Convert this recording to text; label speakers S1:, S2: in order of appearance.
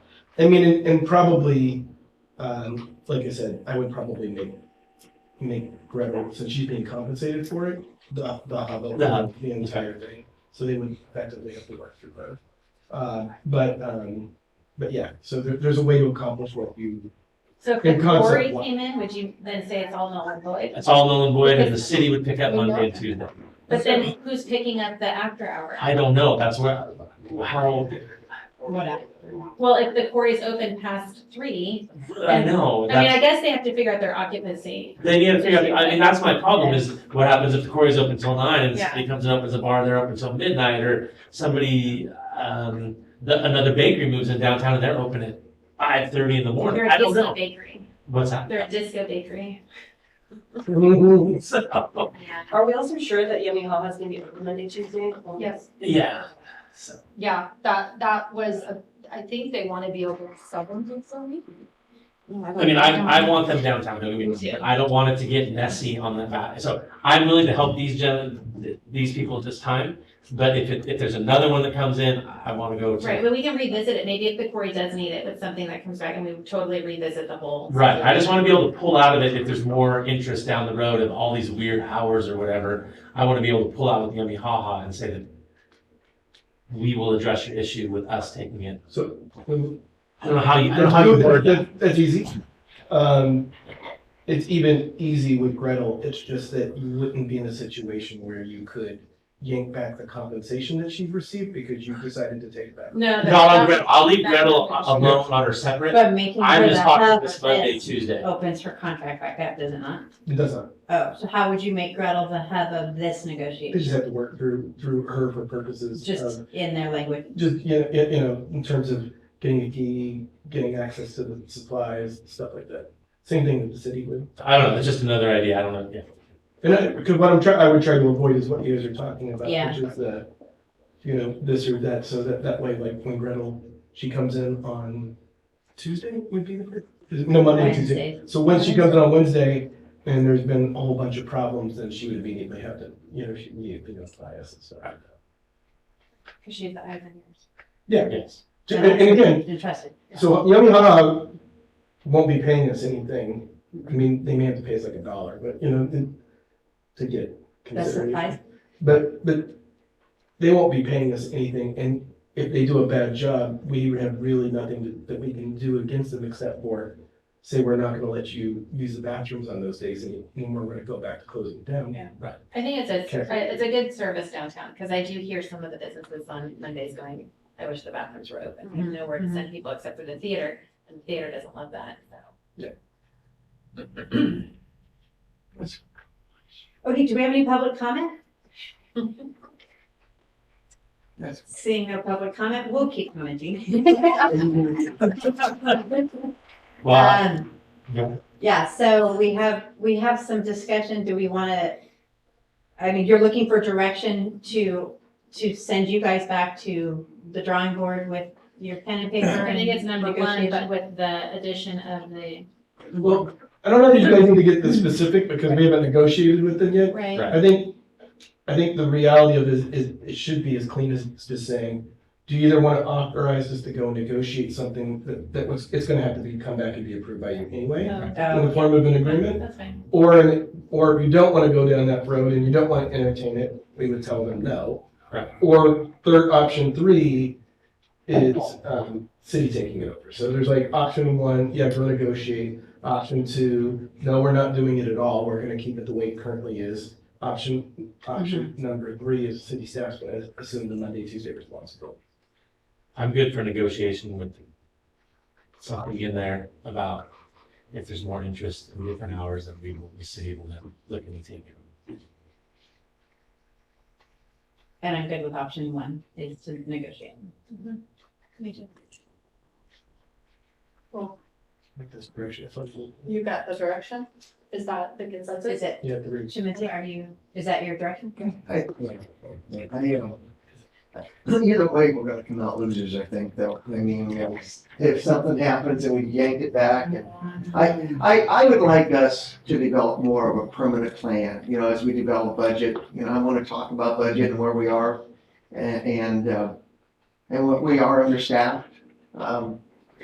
S1: I mean, and, and probably, um, like I said, I would probably make, make Gretel, since she's being compensated for it, the, the hub, of
S2: The hub.
S1: the entire thing. So they would effectively have to work through both. Uh, but, um, but yeah, so there, there's a way to accomplish what you,
S3: So if
S1: In
S3: the
S1: concept,
S3: quarry
S1: what-
S3: came in, would you then say it's all null and void?
S2: It's all null and void, and the city would pick up Monday and Tuesday.
S3: But then who's picking up the after hour?
S2: I don't know, that's where, how,
S4: Whatever.
S3: Well, if the quarry's open past three,
S2: I know,
S3: I mean, I
S2: that's,
S3: guess they have to figure out their occupancy.
S2: they need to figure out, I mean, that's my problem, is what happens if the quarry's open till nine, and the city comes and opens a bar, and they're open till midnight, or somebody, um, the, another bakery moves in downtown and they're open at five thirty in the morning,
S3: They're
S2: I
S3: a
S2: don't
S3: disco
S2: know.
S3: bakery.
S2: What's that?
S3: They're a disco bakery.
S2: So,
S3: Yeah.
S4: Are we also sure that Yummy Haha is gonna be open Monday, Tuesday?
S5: Yes,
S2: yeah, so,
S5: yeah, that, that was, a- I think they want to be open seven days a week.
S2: I mean, I, I want them downtown, don't get me wrong, but I don't want it to get messy on the back. So I'm willing to help these gen, these people at this time. But if it, if there's another one that comes in, I want to go to.
S3: Right, but we can revisit it. Maybe if the quarry does need it, it's something that comes back and we totally revisit the whole.
S2: Right, I just want to be able to pull out of it if there's more interest down the road of all these weird hours or whatever. I want to be able to pull out with Yummy Haha and say that we will address your issue with us taking it.
S1: so.
S2: I don't know how you, I don't know how you word that.
S1: That- That's easy. Um, it's even easy with Gretel. It's just that you wouldn't be in a situation where you could yank back the compensation that she received because you decided to take that.
S3: No.
S2: Not on Gretel,
S3: that-
S2: I'll leave Gretel alone on her separate.
S3: But making
S2: I'm
S3: sure
S2: just
S3: the
S2: talking
S3: hub
S2: this Monday,
S3: is
S2: Tuesday.
S3: opens her contract back up, does it not?
S1: It doesn't.
S3: Oh, so how would you make Gretel the hub of this
S1: They just
S3: negotiation?
S1: have to work through, through her for purposes
S3: Just
S1: of,
S3: in their language.
S1: just, you know, you you know, in terms of getting a key, getting access to the supplies, stuff like that. Same thing that the city would.
S2: I don't know, it's just another idea, I don't know, yeah.
S1: And I, because what I'm trying, I would try to avoid is what you guys are talking about,
S3: Yeah.
S1: which is the, you know, this or that, so that, that way, like, when Gretel, she comes in on Tuesday would be the, first- is it- no, Monday, Tuesday.
S3: Wednesday.
S1: So when she comes in on Wednesday, and there's been a whole bunch of problems, then she would immediately have to, you know, she immediately notify us and stuff. like that.
S5: Because she's the eyes and ears.
S1: Yeah,
S2: Yes.
S1: and, and again,
S3: Interested.
S1: so Yummy Haha won't be paying us anything, I mean, they may have to pay us like a dollar, but, you know, it- to get
S3: That's
S1: consideration.
S3: surprise.
S1: But, but they won't be paying us anything, and if they do a bad job, we have really nothing that- that we can do against them except for say, we're not gonna let you use the bathrooms on those days, and and we're gonna go back to closing it down.
S3: Yeah. I think it's a,
S1: Okay.
S3: it's a good service downtown, because I do hear some of the businesses on Mondays going, I wish the bathrooms were open. We have nowhere to
S6: Mm-hmm.
S3: send people except for the theater, and the theater doesn't love that, so. Okay, do we have any public comment?
S1: Yes.
S3: Seeing no public comment, we'll keep commenting.
S2: Well,
S6: Um,
S2: yeah.
S6: yeah, so we have, we have some discussion, do we wanna, I mean, you're looking for direction to, to send you guys back to the drawing board with your pen and paper?
S3: I think it's
S6: and
S3: number one, but
S6: negotiation?
S3: with the addition of the,
S1: Well, I don't know if you guys need to get this specific, because we haven't negotiated with them yet.
S6: Right,
S2: Right.
S1: I think, I think the reality of it is, it should be as clean as just saying, do you either wanna authorize us to go negotiate something that, that was, it's gonna have to be, come back and be approved by you anyway, in the form of an agreement?
S3: that's fine.
S1: Or, or if you don't want to go down that road and you don't want to entertain it, we would tell them no.
S2: Right.
S1: Or third, option three is, um, city taking it over. So there's like option one, yeah, go negotiate. Option two, no, we're not doing it at all. We're gonna keep it the way it currently is. Option, option number three is city staff's gonna assume the Monday, Tuesday responsibility.
S2: I'm good for negotiation with something in there about if there's more interest in different hours that we will be able to look and take.
S6: and I'm good with option one, is to negotiate.
S1: Make this correction. I thought you-
S4: You got the direction? Is that the consensus?
S6: Is it,
S1: You have to reach.
S6: Shimenti, are you, is that your direction?
S7: I, I am. Either way, we're gonna come out losers, I think, though. I mean, if- if something happens and we yank it back and I, I, I would like us to develop more of a permanent plan, you know, as we develop budget. You know, I wanna talk about budget and where we are and, and, uh, and what we are understaffed. Um,